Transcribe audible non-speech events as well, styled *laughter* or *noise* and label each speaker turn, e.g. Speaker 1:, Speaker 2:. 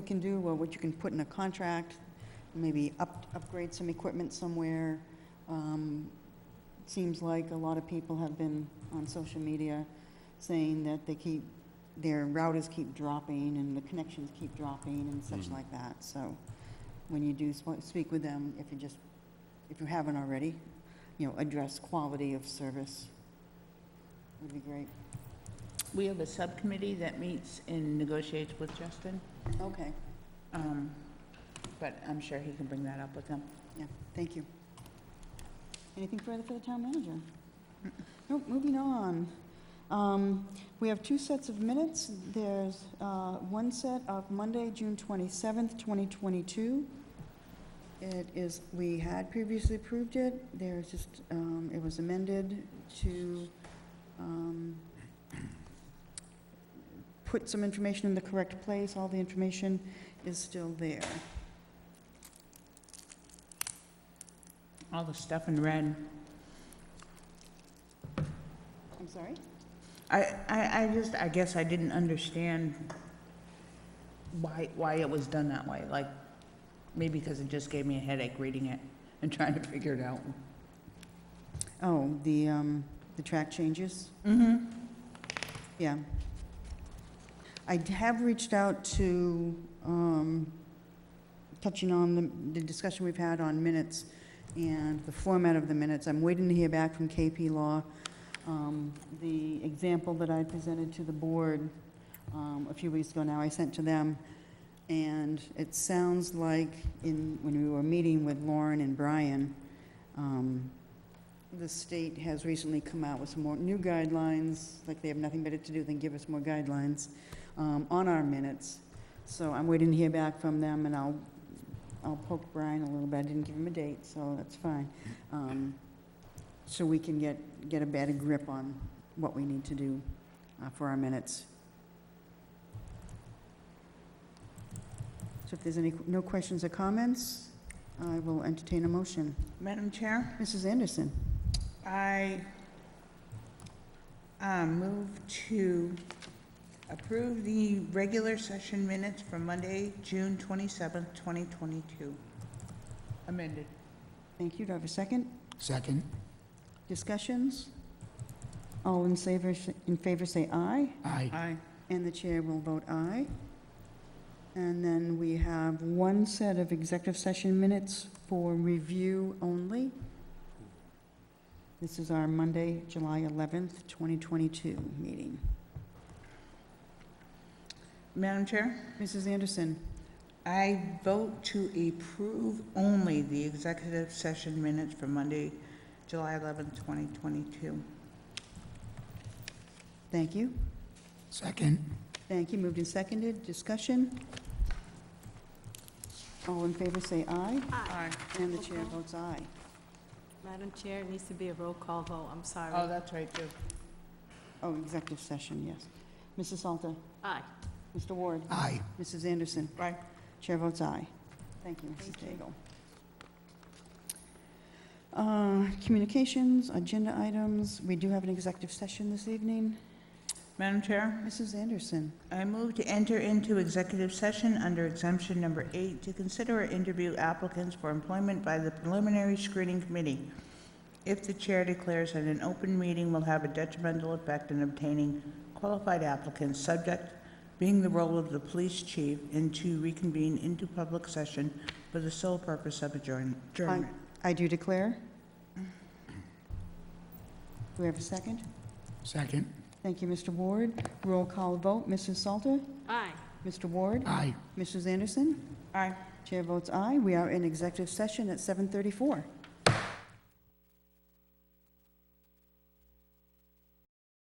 Speaker 1: you can do, or what you can put in a contract, maybe up, upgrade some equipment somewhere. Um, it Seems like a lot of people have been on social media saying that they keep, their routers keep dropping and the connections keep dropping and such
Speaker 2: Mhm.
Speaker 1: like that. So when you do sp- speak with them, if you just, if you haven't already, you know, address quality of service would be great.
Speaker 3: We have a subcommittee that meets and negotiates with Justin,
Speaker 1: Okay,
Speaker 3: um, but I'm sure he can bring that up with them.
Speaker 1: yeah, thank you. Anything further for the town manager? Nope, moving on. Um, We have two sets of minutes. There's uh, one set of Monday, June 27th, 2022. It is, we had previously approved it. There's just, um, it was amended to um, put some information in the correct place. All the information is still there.
Speaker 3: All the stuff in red.
Speaker 1: I'm sorry?
Speaker 3: I, I, I just, I guess I didn't understand why, why it was done that way, like, maybe because it just gave me a headache reading it and *laughs* trying to figure it out.
Speaker 1: Oh, the, um, the track changes?
Speaker 3: Mm-hmm.
Speaker 1: Yeah. I d- have reached out to, um, touching on the, the discussion we've had on minutes and the format of the minutes. I'm waiting to hear back from KP Law. Um, The example that I presented to the board um, a few weeks ago now, I sent to them. And it sounds like in, when we were meeting with Lauren and Brian, um, the state has recently come out with some more new guidelines, like they have nothing better to do than give us more guidelines um, on our minutes. So I'm waiting to hear back from them, and I'll, I'll poke Brian a little bit. I didn't give him a date, so that's fine. Um, So we can get, get a better grip on what we need to do uh, for our minutes. So if there's any, no questions or comments, I will entertain a motion.
Speaker 3: Madam Chair,
Speaker 1: Mrs. Anderson?
Speaker 3: I uh, move to approve the regular session minutes for Monday, June 27th, 2022. Amended.
Speaker 1: Thank you. Do I have a second?
Speaker 2: Second.
Speaker 1: Discussions? All in favor, in favor say aye,
Speaker 2: Aye.
Speaker 3: Aye.
Speaker 1: and the chair will vote aye. And then we have one set of executive session minutes for review only. This is our Monday, July 11th, 2022 meeting.
Speaker 3: Madam Chair?
Speaker 1: Mrs. Anderson,
Speaker 3: I vote to approve only the executive session minutes for Monday, July 11th, 2022.
Speaker 1: thank you.
Speaker 2: Second.
Speaker 1: Thank you. Moved and seconded. Discussion? All in favor say aye,
Speaker 3: Aye.
Speaker 1: and the chair votes aye.
Speaker 4: Madam Chair, it needs to be a roll call vote, I'm
Speaker 3: Oh,
Speaker 4: sorry.
Speaker 3: that's right, too.
Speaker 1: Oh, executive session, yes. Mrs. Salter?
Speaker 4: Aye.
Speaker 1: Mr. Ward?
Speaker 2: Aye.
Speaker 1: Mrs. Anderson?
Speaker 3: Aye.
Speaker 1: Chair votes aye. Thank you, Mrs.
Speaker 4: Thank
Speaker 1: Daigle. Uh, Communications, agenda items, we do have an executive session this evening.
Speaker 3: Madam Chair,
Speaker 1: Mrs. Anderson,
Speaker 3: I move to enter into executive session under exemption number eight to consider or interview applicants for employment by the preliminary screening committee if the chair declares that an open meeting will have a detrimental effect in obtaining qualified applicants, subject being the role of the police chief, and to reconvene into public session for the sole purpose of adjourn- adjournment.
Speaker 1: I do declare. Do we have a second?
Speaker 2: Second.
Speaker 1: Thank you, Mr. Ward. Roll call vote, Mrs. Salter?
Speaker 4: Aye.
Speaker 1: Mr. Ward?
Speaker 2: Aye.
Speaker 1: Mrs. Anderson?
Speaker 3: Aye.
Speaker 1: Chair votes aye. We are in executive session at 7:34.